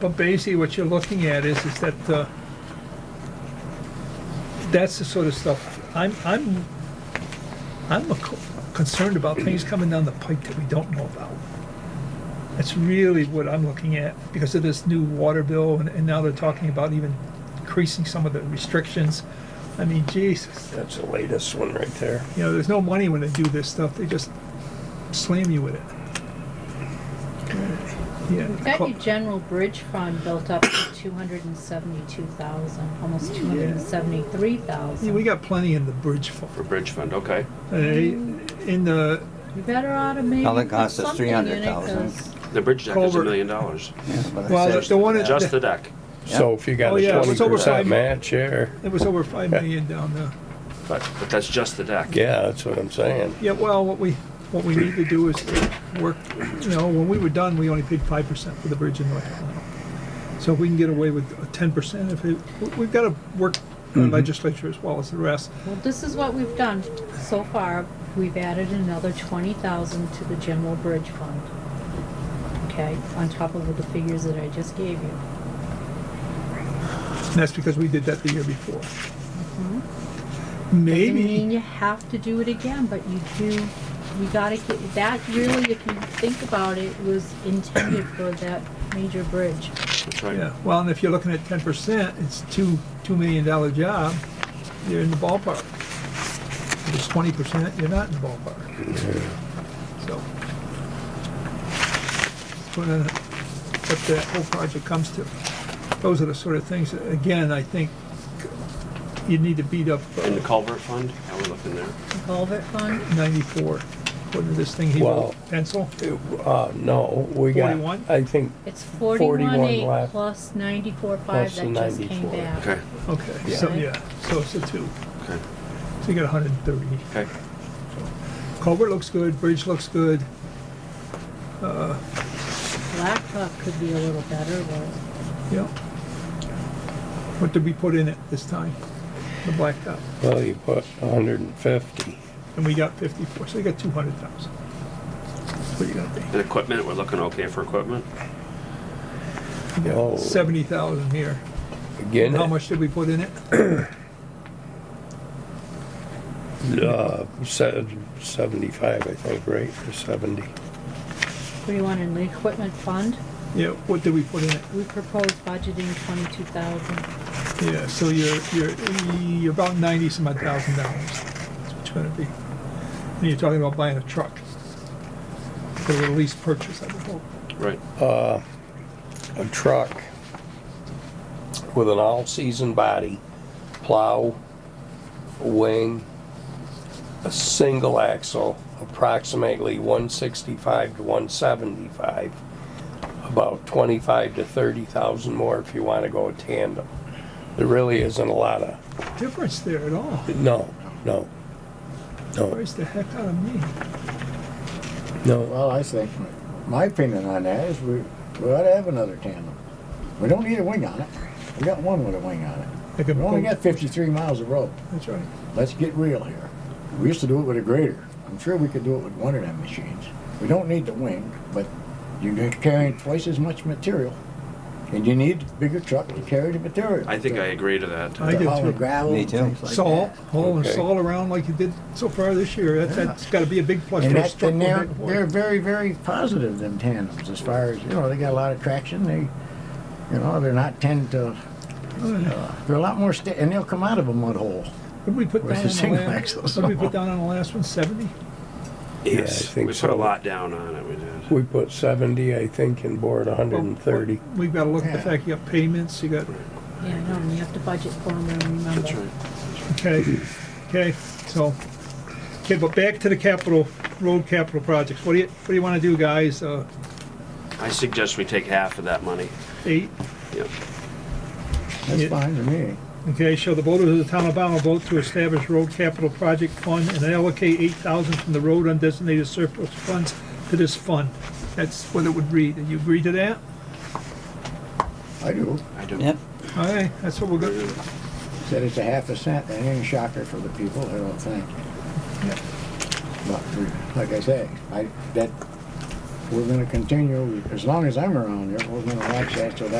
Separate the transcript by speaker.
Speaker 1: But basically, what you're looking at is, is that, uh, that's the sort of stuff, I'm, I'm, I'm a co- concerned about things coming down the pike that we don't know about. That's really what I'm looking at, because of this new water bill, and, and now they're talking about even increasing some of the restrictions. I mean, Jesus,
Speaker 2: That's the latest one right there.
Speaker 1: you know, there's no money when they do this stuff, they just slam you with it. Yeah.
Speaker 3: We've got your general bridge fund built up to two hundred and seventy-two thousand, almost two hundred and seventy-three
Speaker 1: Yeah,
Speaker 3: thousand.
Speaker 1: we got plenty in the bridge fund.
Speaker 4: For bridge fund, okay.
Speaker 1: Uh, In the
Speaker 3: You better automate.
Speaker 5: Now that
Speaker 3: and put
Speaker 5: costs us
Speaker 3: something in it,
Speaker 5: 300,000.
Speaker 3: 'cause
Speaker 4: The bridge deck is a
Speaker 1: Culvert.
Speaker 4: million dollars,
Speaker 5: Yeah, but I
Speaker 1: Well,
Speaker 5: said-
Speaker 1: the- the one that-
Speaker 4: just the deck,
Speaker 2: So if you got
Speaker 1: Oh,
Speaker 2: a
Speaker 1: yeah, it
Speaker 2: twenty
Speaker 1: was over five-
Speaker 2: percent match there,
Speaker 1: it was over five million down there.
Speaker 4: but, but that's just the deck.
Speaker 2: yeah, that's what I'm saying.
Speaker 1: Yeah, well, what we what we need to do is to work. You know, when we were done, we only paid five percent for the bridge in North Carolina. So if we can get away with ten percent, if it, we- we've got to work our legislature as well as the rest.
Speaker 3: Well, this is what we've done so far. We've added another twenty thousand to the general bridge fund. Okay, on top of the figures that I just gave you.
Speaker 1: And that's because we did that the year before.
Speaker 3: Doesn't
Speaker 1: Mm-hmm. Maybe.
Speaker 3: mean you have to do it again, but you do, you gotta get, that really, if you think about it, was intended for that major bridge.
Speaker 4: That's right.
Speaker 1: Yeah, well, and if you're looking at ten percent, it's two, two million dollar job, you're in the ballpark. If it's twenty percent, you're not in the ballpark. So. it's What, uh, what the whole project comes to. Those are the sort of things, that, again, I think you need to beat up uh,
Speaker 4: And the culvert fund, now we're looking there.
Speaker 3: The culvert fund,
Speaker 1: ninety-four, what is this thing he
Speaker 2: Well,
Speaker 1: wrote, pencil?
Speaker 2: Uh, no, we got,
Speaker 1: 41?
Speaker 2: I think,
Speaker 3: it's forty-one
Speaker 2: 41
Speaker 3: eight
Speaker 2: left.
Speaker 3: plus ninety-four five
Speaker 2: Plus the
Speaker 3: that just came
Speaker 2: 94.
Speaker 3: back.
Speaker 4: Okay,
Speaker 1: Okay, so,
Speaker 3: Yeah.
Speaker 1: yeah, so it's a two,
Speaker 4: okay,
Speaker 1: so you got hundred and thirty.
Speaker 4: okay.
Speaker 1: Culvert looks good, bridge looks good,
Speaker 3: Blacktop could be a little better, but
Speaker 1: Yeah. What did we put in it this time? The blacktop.
Speaker 2: well, you put hundred and fifty.
Speaker 1: And we got fifty-four, so you got two hundred thousand. What are you gonna
Speaker 4: And equipment, we're looking okay for equipment?
Speaker 2: Oh,
Speaker 1: be? Seventy thousand here.
Speaker 2: again,
Speaker 1: How much did we put in it?
Speaker 2: Uh, said seventy-five, I think, right, or seventy.
Speaker 3: what do you want in the equipment fund?
Speaker 1: Yeah, what did we put in it?
Speaker 3: We propose budgeting twenty-two thousand.
Speaker 1: Yeah, so you're, you're, you're about ninety some odd thousand dollars. That's what you're gonna be. And you're talking about buying a truck. For a lease purchase, I would hope.
Speaker 4: Right.
Speaker 2: A truck with an all-season body, plow, wing, a single axle, approximately one sixty-five to one seventy-five. About twenty-five to thirty thousand more if you wanna go tandem. There really isn't a lot of,
Speaker 1: Difference there at all.
Speaker 2: no, no, no,
Speaker 1: Price the heck out of me.
Speaker 2: no.
Speaker 6: Well, I think, my opinion on that is we, we ought to have another tandem. We don't need a wing on it. We got one with a wing on it.
Speaker 1: They can
Speaker 6: We only
Speaker 1: pull-
Speaker 6: got fifty-three miles of road.
Speaker 1: That's right.
Speaker 6: Let's get real here. We used to do it with a grader. I'm sure we could do it with one of them machines. We don't need the wing, but you're carrying twice as much material. And you need a bigger truck to carry the material.
Speaker 4: I think I agree to that.
Speaker 1: I
Speaker 6: To
Speaker 1: do
Speaker 6: haul
Speaker 1: too.
Speaker 6: the gravel
Speaker 5: Me
Speaker 6: and
Speaker 5: too.
Speaker 6: things like
Speaker 1: Salt,
Speaker 6: that.
Speaker 1: hauling
Speaker 2: Okay.
Speaker 1: salt around like you did so far this year, that's, that's gotta be a big plus for
Speaker 6: And
Speaker 1: us.
Speaker 6: that, and they're, they're very, very positive, them tandems, as far as, you know, they got a lot of traction, they, you know, they're not tend to, uh, they're a lot more sta, and they'll come out of a mud hole.
Speaker 1: What did we put down
Speaker 6: Where's
Speaker 1: on
Speaker 6: the
Speaker 1: the
Speaker 6: single
Speaker 1: last,
Speaker 6: axle
Speaker 1: what did we put
Speaker 6: salt?
Speaker 1: down on the last one, seventy?
Speaker 2: Yeah, I
Speaker 4: Yes,
Speaker 2: think
Speaker 4: We put
Speaker 2: so.
Speaker 4: a lot down on it, we did.
Speaker 2: We put seventy, I think, and board hundred and thirty.
Speaker 1: We've gotta look at the
Speaker 6: Yeah.
Speaker 1: fact you got payments, you got,
Speaker 3: Yeah, I know, and you have to budget for them, and remember.
Speaker 4: That's right.
Speaker 1: okay, okay, so. Okay, but back to the capital, road capital projects, what do you, what do you wanna do, guys, uh,
Speaker 4: I suggest we take half of that money.
Speaker 1: eight?
Speaker 4: Yep.
Speaker 6: That's
Speaker 1: Yeah.
Speaker 6: fine to me.
Speaker 1: Okay, shall the voters of the town of Pownell vote to establish road capital project fund and allocate eight thousand from the road undesignated surplus funds to this fund? That's what it would read. Do you agree to that?
Speaker 6: I do,
Speaker 4: I do.
Speaker 5: Yep,
Speaker 1: All right, that's what we're
Speaker 4: I
Speaker 1: going
Speaker 4: do.
Speaker 6: said it's a half a cent, that ain't a shocker for the people, I don't think. But, we- like I say, I, that, we're gonna continue, as long as I'm around here, we're gonna watch that till that